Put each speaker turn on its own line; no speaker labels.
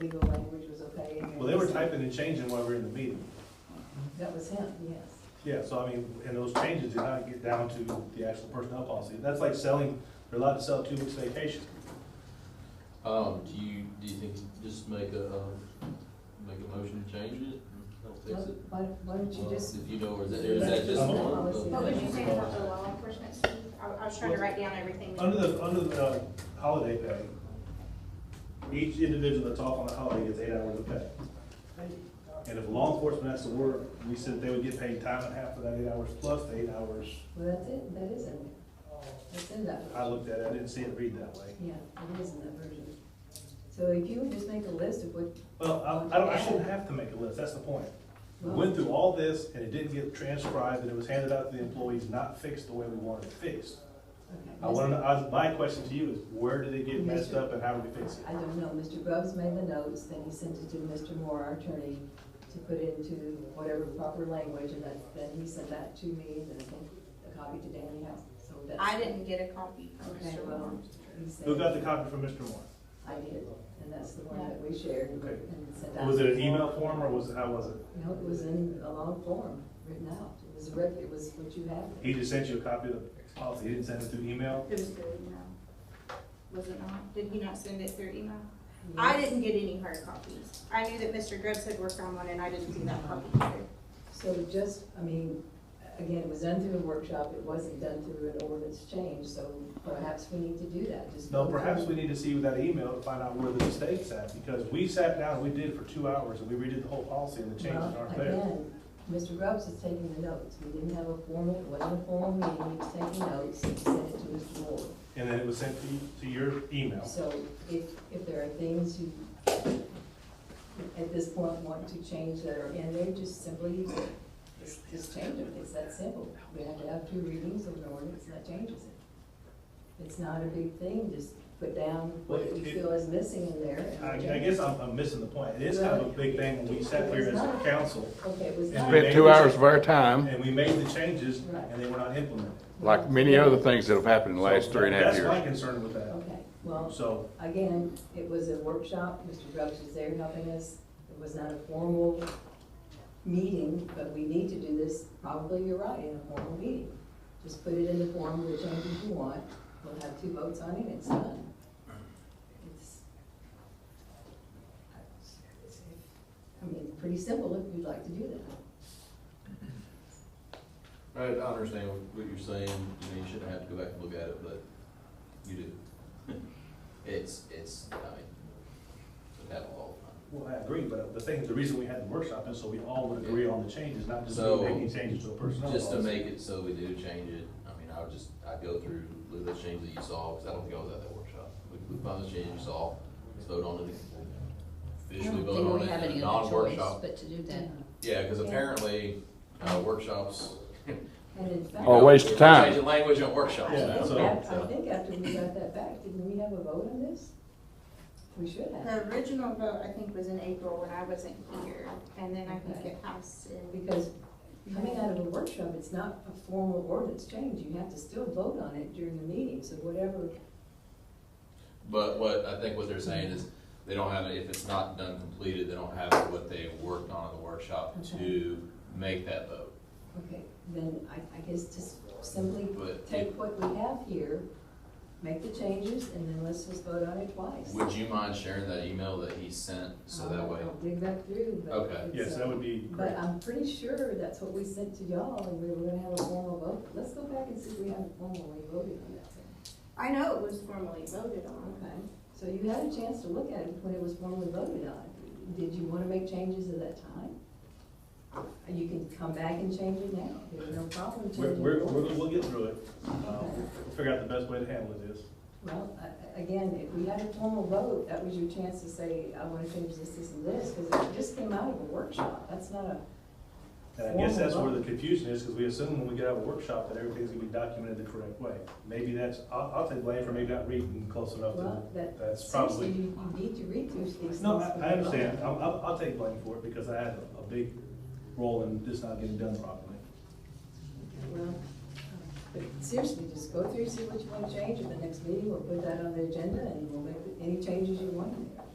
legal language was okay. and
Well, they were
was-
typing and changing while we were in the meeting.
That was him, yes.
Yeah, so I mean, and those changes did not get down to the actual personnel policy. That's like selling, they're allowed to sell two weeks vacation.
Um, do you, do you think, just make a, um, make a motion to change it? Don't fix it?
Why, why don't you
Well,
just,
If you know, or is that, or is that just?
That's
one?
the
policy.
What would you say about the law enforcement, Steve? I, I was trying to write down everything.
Under the, under the uh, holiday pay, each individual that's off on a holiday gets eight hours of pay. And if law enforcement has to work, we said they would get paid time and a half for that eight hours plus the eight hours.
well, that's it, that is in
Oh.
there. That's in that.
I looked at it, I didn't see it read that way.
Yeah, it is in that version. So if you would just make a list of what,
Well, I, I don't, I shouldn't have to make a list, that's the point. We went through all this and it didn't get transcribed and it was handed out to the employees, not fixed the way we wanted it fixed.
okay.
I wanna, know- I, my question to you is, where did it get messed up and how do we fix it?
I don't know, Mr. Grubbs made the notes, then he sent it to Mr. Moore, our attorney, to put into whatever proper language, and that, then he sent that to me, and I think a copy to Danny House, so that's.
I didn't get a copy from
Okay,
Mr.
well,
Moore.
he said-
Who got the copy from Mr. Moore?
I did, and that's the one that we shared
Okay.
and sent out.
Was it an email form or was, how was it?
No, it was in a long form, written out, it was a rec, it was what you had.
He just sent you a copy of the policy, he didn't send it through email?
It was through email. Was it not? Did he not send it through email? I didn't get any hard copies. I knew that Mr. Grubbs had worked on one and I didn't see that copy either.
So just, I mean, again, it was done through a workshop, it wasn't done through an ordinance change, so perhaps we need to do that, just.
No, perhaps we need to see that email to find out where the mistakes at, because we sat down, we did it for two hours and we redid the whole policy and the changes
Well,
aren't there.
again, Mr. Grubbs is taking the notes, we didn't have a formal, it wasn't a formal meeting, he was taking notes, and he sent it to Mr. Moore.
And then it was sent to, you- to your email.
So if, if there are things you, at this point, want to change that are in there, just simply, just, just change them, it's that simple. We have to have two readings of an ordinance, and that changes it. It's not a big thing, just put down what you feel is missing in there. and
I, I
change it.
guess I'm, I'm missing the point. It is kind of a big thing when we sat here as a council
Okay, it was not.
Spent two hours of our time,
and we made the changes and they were not implemented.
like many other things that have happened in the last
So
three and a half
That's my
years.
concern with that.
Okay, well,
So,
again, it was a workshop, Mr. Grubbs was there helping us. It was not a formal meeting, but we need to do this, probably you're right, in a formal meeting. Just put it in the form of the changes you want, we'll have two votes on it, it's done. It's I mean, it's pretty simple if you'd like to do that.
I I understand what you're saying, you know, you shouldn't have to go back and look at it, but you do. It's, it's, I mean, it's happened all the time.
well, I agree, but the thing, the reason we had the workshop is so we all would agree on the changes, not just
So,
making changes to a personnel
Just to
policy.
make it so we do change it, I mean, I would just, I'd go through, look at the changes that you saw, because I don't think I was at that workshop. We, we find the changes you saw, let's vote on it, officially vote on it, in a non-workshop.
but to do
Yeah, because apparently, uh, workshops.
And in fact,
Oh,
Or a Oh, waste of
We're
time.
Changing language at workshops
Yeah,
now,
so-
I
so.
think after we got that back, didn't we have a vote on this? We should have.
The original vote, I think, was in April when I wasn't here, and then I think
Okay.
it passed in.
Because coming out of a workshop, it's not a formal ordinance change, you have to still vote on it during the meeting, so whatever.
But what, I think what they're saying is, they don't have, if it's not done completed, they don't have what they worked on in the workshop
Okay.
to make that vote.
Okay, then I, I guess just simply
But
take what we have here, make the changes, and then let's just vote on it twice.
would you mind sharing that email that he sent, so that
I'll-
way?
I'll dig back through, but.
Okay.
it's,
Yes,
uh,
that would be great.
But I'm pretty sure that's what we sent to y'all, and we were gonna have a formal vote, let's go back and see if we haven't formally voted on that.
I know it was formally voted on.
Okay, so you had a chance to look at it when it was formally voted on. Did you want to make changes at that time? And You can come back and change it now, there's no problem
We're,
changing.
we're,
it.
we're- we'll get through it. Um, we'll figure out the best way to handle this.
Well, a- a- again, if we had a formal vote, that was your chance to say, I want to change this, this, and this, because it just came out of a workshop, that's not a.
And I guess that's where
formal
the
vote.
confusion is, because we assume when we get out of a workshop that everything's gonna be documented the correct way. Maybe that's, I'll, I'll take blame for maybe not reading close enough to,
Well, that,
that's
seriously,
probably.
you you need to read through these things.
No, I, I
before you vote.
understand. I'll, I'll, I'll take blame for it because I had a- a big role in this not getting done properly.
Well, uh, But seriously, just go through, see what you want to change, at the next meeting, we'll put that on the agenda, and we'll make any changes you want in there.